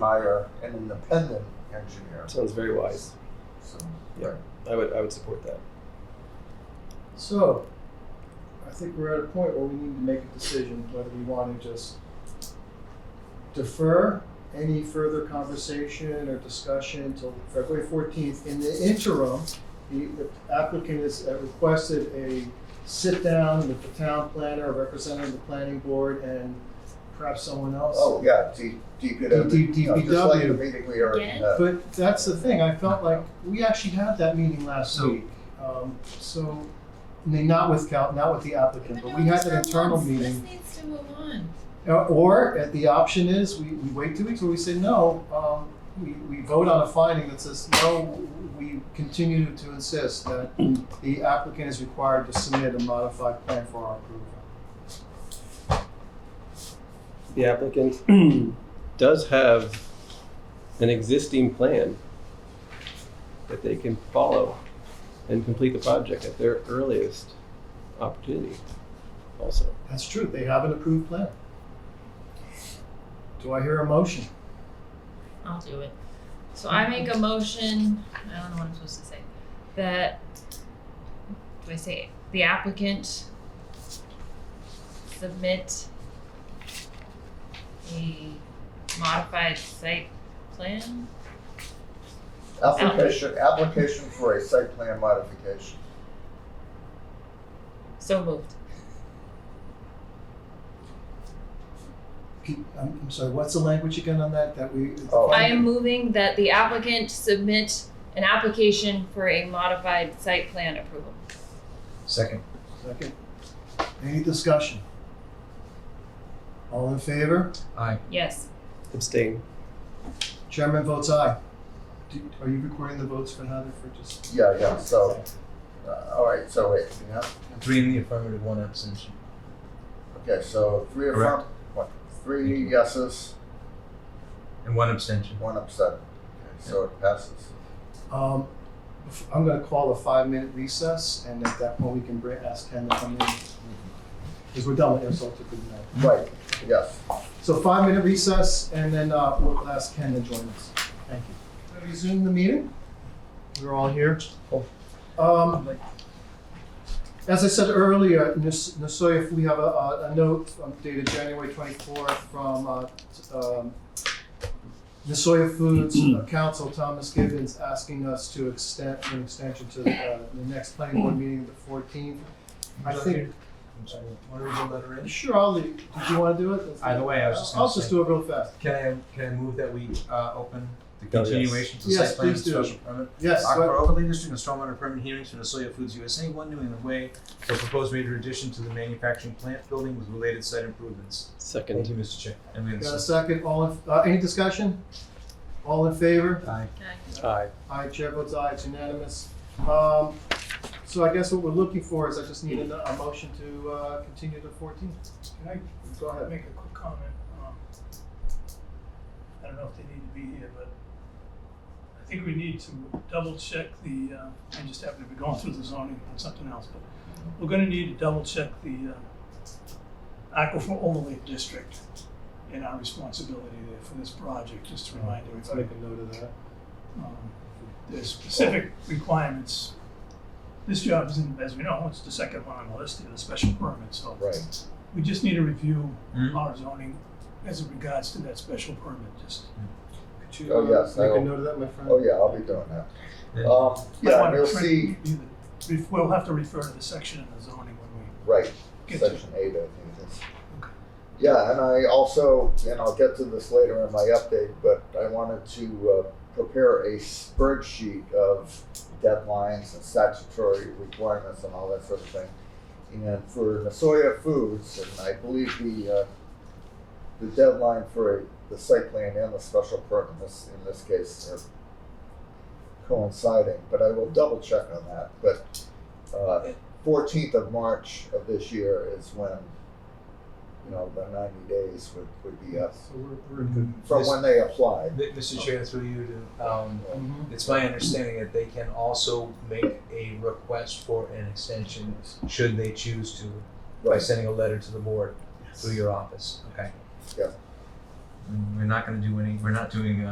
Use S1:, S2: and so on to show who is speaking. S1: hire an independent engineer.
S2: Sounds very wise.
S1: So,
S2: Yeah. I would, I would support that.
S3: So, I think we're at a point where we need to make a decision whether we want to just defer any further conversation or discussion until February fourteenth. In the interim, the the applicant has uh, requested a sit-down with the town planner, representing the planning board, and perhaps someone else.
S1: Oh, yeah, D, DPW.
S3: D- D-
S1: Yeah, Just like the
S3: DPW.
S1: meeting we already
S4: Get it?
S1: had.
S3: But that's the thing, I felt like, we actually had that meeting last
S5: So-
S3: week. Um, So, I mean, not with Cal, not with the applicant, but we had an internal meeting.
S4: This needs to move on.
S3: Uh, Or, at the option is, we, we wait two weeks, or we say, no, um, we, we vote on a finding that says, no, we continue to insist that the applicant is required to submit a modified plan for our approval.
S2: The applicant does have an existing plan that they can follow and complete the project at their earliest opportunity also.
S3: That's true, they have an approved plan. Do I hear a motion?
S4: I'll do it. So I make a motion, I don't know what I'm supposed to say, that, do I say, the applicant submit a modified site plan?
S1: Application, application for a site plan modification.
S4: So moved.
S3: Can- I'm, I'm sorry, what's the language again on that, that we?
S1: Oh.
S4: I am moving that the applicant submit an application for a modified site plan approval.
S5: Second.
S3: Second. Any discussion? All in favor?
S5: Aye.
S4: Yes,
S2: Abstain.
S3: Chairman votes aye. Do- Are you recording the votes for Heather for just?
S1: Yeah, yeah, so, uh, all right, so wait, yeah,
S5: Three in the affirmative, one abstention.
S1: okay, so three affirm,
S5: Correct.
S1: what, three yeses,
S5: And one abstention.
S1: one upset. Okay, So it passes.
S3: Um, I'm gonna call a five-minute recess, and at that point, we can bring, ask Ken to come in. Because we're done with insult to good night.
S1: Right, yes.
S3: So five-minute recess, and then, uh, we'll ask Ken to join us. Thank you. Can I Resume the meeting? We're all here. Oh. Um, As I said earlier, Nas- Nasoya, we have a, a a note um, dated January twenty-fourth from, uh, t- um, Nasoya Foods uh, Council, Thomas Gibbons, asking us to extend, an extension to, uh, the next planning board meeting, the fourteenth. I think,
S5: I'm sorry, want to read the letter in?
S3: sure, I'll leave, did you wanna do it?
S5: Either way, I was just
S3: I'll
S5: gonna
S3: just
S5: say,
S3: do it real fast.
S5: can I, can I move that we, uh, open the
S2: Oh, yes.
S5: continuation to
S3: Yes,
S5: site plan and
S3: please do.
S5: special permit?
S3: Yes,
S5: Aqua
S3: so-
S5: overlay district and stormwater permit hearings for Nasoya Foods USA, one New England Way, for proposed major addition to the manufacturing plant building with related site improvements. Thank
S2: Second.
S5: you, Mr. Chair. And we have a
S3: got a
S5: second.
S3: second, all, in- uh, any discussion? All in favor?
S5: Aye.
S2: Aye.
S3: Aye, chair votes aye, it's unanimous. Um, so I guess what we're looking for is I just need a, a motion to, uh, continue to fourteen.
S6: Can I
S3: Go ahead.
S6: make a quick comment? Um, I don't know if they need to be here, but I think we need to double check the, uh, I just happen to be going through the zoning on something else, but we're gonna need to double check the uh, aquifer overlay district and our responsibility there for this project, just to remind
S3: Let's
S6: everybody.
S3: make a note of that.
S6: Um, There's specific requirements. This job isn't, as we know, it's the second one on the list, the special permit, so.
S1: Right.
S6: We just need to review
S5: Mhm.
S6: our zoning as it regards to that special permit, just.
S3: Could you,
S1: Oh,
S3: uh,
S1: yes, I
S3: Make a
S1: will.
S3: note of that, my friend?
S1: Oh, yeah, I'll be doing that.
S5: Then-
S1: Um, yeah,
S6: Might
S1: and
S6: wanna
S1: you'll
S6: print-
S1: see,
S6: review the- we- We'll have to refer to the section in the zoning when we
S1: right,
S6: get to it.
S1: section eight, I think it is. Yeah, and I also, and I'll get to this later in my update, but I wanted to uh, prepare a spreadsheet of deadlines and statutory requirements and all that sort of thing. And for Nasoya Foods, and I believe the, uh, the deadline for the site plan and the special permit, this, in this case, are coinciding, but I will double check on that, but, uh, fourteenth of March of this year is when, you know, the ninety days would, would be up,
S3: So we're, we're good.
S1: from
S5: This-
S1: when they applied.
S5: Mi- Mr. Chair, through you to, um,
S3: Mhm.
S5: it's my understanding that they can also make a request for an extension should they choose to by
S1: Right,
S5: sending a letter to the board through your office. Okay.
S1: Yeah.
S5: We're not gonna do any, we're not doing, uh,